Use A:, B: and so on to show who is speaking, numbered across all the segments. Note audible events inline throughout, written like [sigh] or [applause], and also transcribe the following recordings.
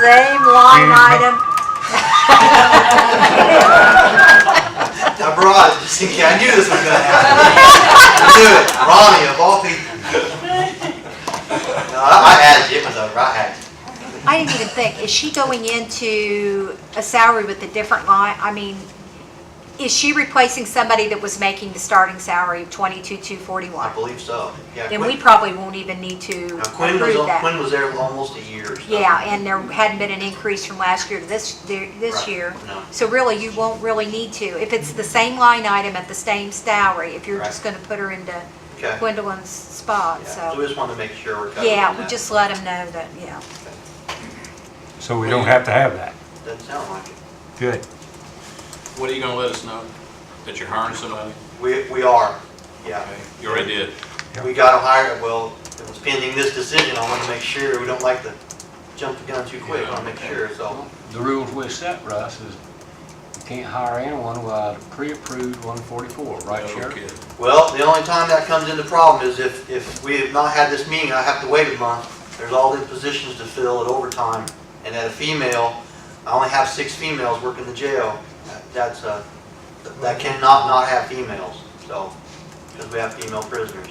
A: same line item.
B: Abroad, just thinking, I knew this was gonna happen. I knew it, Ronnie of all people. No, I I had you, it was over, I had you.
A: I didn't even think, is she going into a salary with a different line? I mean, is she replacing somebody that was making the starting salary of twenty-two, two
B: I
A: forty-one?
B: believe so, yeah.
A: Then
B: Quinn-
A: we probably won't even need to
B: now Quinn was,
A: approve
B: on-
A: that.
B: Quinn was there almost a year or so.
A: Yeah, and there hadn't been an increase from last year to this, this
B: Right.
A: year.
B: No.
A: So really, you won't really need to. If it's the same line item at the same salary, if you're
B: Right.
A: just gonna put her into
B: Okay.
A: Gwendolyn's spot,
B: Yeah, So we
A: so.
B: just wanted to make sure we're covered.
A: Yeah,
B: in
A: we
B: that.
A: just let them know that, yeah.
C: So we don't have to have that.
B: Doesn't sound like it.
C: Good.
D: What are you gonna let us know? That you're hiring somebody?
B: We, we are, yeah.
D: You already did.
B: We gotta hire, well, it was pending this decision, I wanna make sure, we don't like to jump the gun too quick, I wanna make sure, so.
E: The rules we set, Russ, is you can't hire anyone without a pre-approved 144, right,
D: No
E: Sheriff?
D: kidding.
B: Well, the only time that comes into problem is if, if we have not had this meeting, I have to wait a month. There's all these positions to fill at overtime, and at a female, I only have six females working the jail. That- That's, uh, that cannot not have females, so, because we have female prisoners.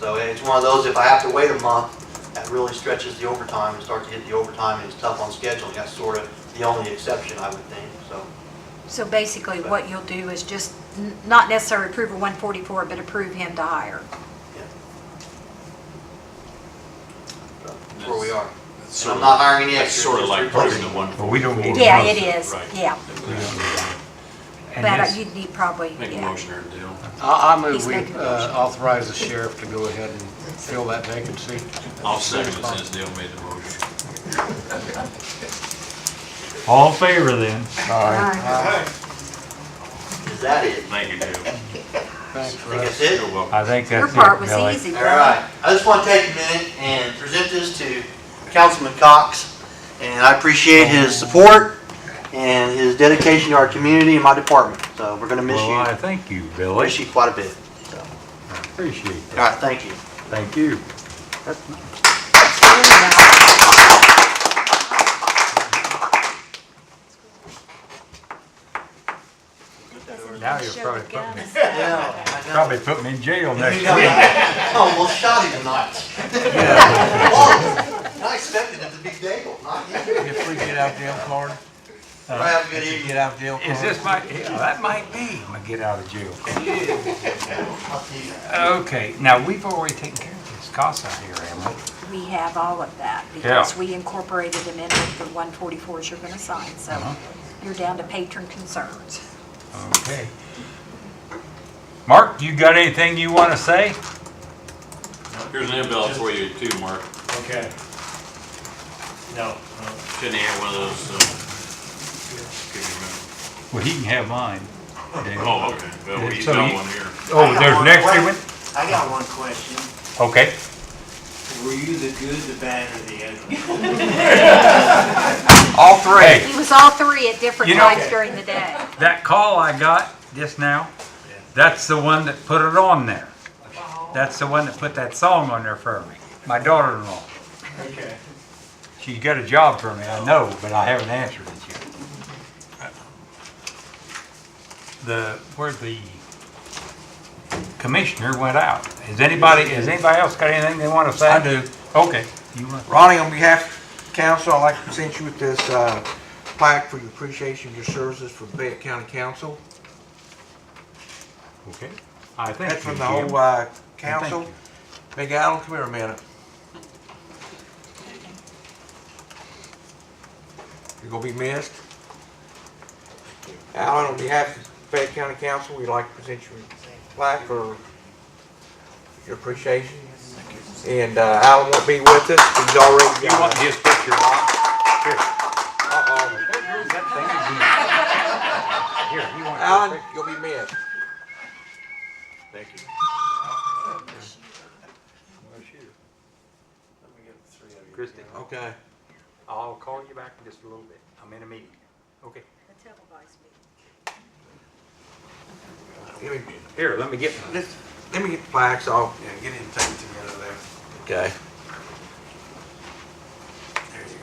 B: So it's one of those, if I have to wait a month, that really stretches the overtime and starts to hit the overtime, and it's tough on scheduling. That's sort of the only exception, I would think, so.
A: So basically, what you'll do is just n- not necessarily approve a 144, but approve him to hire.
B: That's where we are.
D: That's
B: And I'm
D: sort
B: not
D: of,
B: hiring any
D: that's
B: extras.
D: sort of
B: just
D: like
B: replacing
D: approving the
B: them.
D: one.
C: But we don't need.
A: Yeah,
C: to-
A: it is,
D: Right.
A: yeah.
C: And
A: But uh,
C: this-
A: you'd need probably,
D: Make a
A: yeah.
D: motion or a deal.
E: I I
A: He's
E: move we
A: making a motion.
E: uh, authorize the sheriff to go ahead and fill that vacancy.
D: I'll second it since Dale made the motion.
C: All in favor then?
A: Aye.
B: Is that it?
D: Thank you, Dale.
E: Thanks,
B: I think
E: Russ.
B: that's it.
D: You're welcome.
C: I think
A: Your
C: that's
A: part
C: it,
A: was
C: Billy.
A: easy,
B: All
A: Billy.
B: right. I just want to take a minute and present this to Councilman Cox. And I appreciate his support and his dedication to our community and my department. So we're going to miss
C: Well, I
B: you.
C: thank you,
B: Miss
C: Billy.
B: you quite a bit. So, All
C: I Appreciate that.
B: right, thank you.
C: Thank you. Now you'll probably put me,
B: [laughs] Yeah, I know.
C: probably put me in jail next week.
B: Almost shot him Oh, tonight. [laughs] I expected it to be Dable, not you.
F: If we get out jail card,
B: Have a good
F: if we
B: evening.
F: get out jail
C: Is
F: card,
C: this my, yeah, that might be my get out of jail. card.
B: I'll see you.
C: Okay, now we've already taken care of this CASA here, haven't we?
A: We have all of that because we incorporated them in with the 144s you're going to sign, so
C: Uh-huh.
A: you're down to patron concerns.
C: Okay. Mark, you got anything you want to say?
D: Here's an email for you too, Mark.
G: Okay. No, no.
D: Shouldn't have had one of those, so. Couldn't
C: Well, he can have mine.
D: remember. Oh, okay. Well, he's
C: So
D: done
C: you-
D: one here.
C: Oh, there's an extra one?
G: I got one question.
C: Okay.
G: Were you the good, the bad, or the ugly?
C: All three.
A: He was all three at different
C: You know-
A: times during the day.
C: That call I got just now, that's the one that put it on there. That's the one that put that song on there for me, my daughter-in-law.
G: Okay.
C: She's got a job for me, I know, but I haven't answered it yet. The, where the commissioner went out. Has anybody, has anybody else got anything they want to say?
F: I do.
C: Okay. You want-
F: Ronnie, on behalf of council, I'd like to present you with this uh, plaque for your appreciation of your services for Fayette County Council.
C: Okay. I think.
F: That's from
C: you,
F: the
C: Jim.
F: whole uh,
C: Thank
F: council.
C: you.
F: Big Allen, come here a minute. You're gonna be missed. Allen, on behalf of Fayette County Council, we'd like to present you a plaque for your appreciation. And uh, Allen won't be with us, he's already.
C: You want his picture on?
F: Uh-oh.
C: Here, you want his
F: Allen, you'll be missed.
B: Thank you.
C: picture. Christie,
F: Okay.
C: I'll call you back in just a little bit. I'm in a meeting. Okay.
F: Let me,
C: Here, let me get
F: let me get the plaques off.
H: Yeah, get him taken together there.
F: Okay.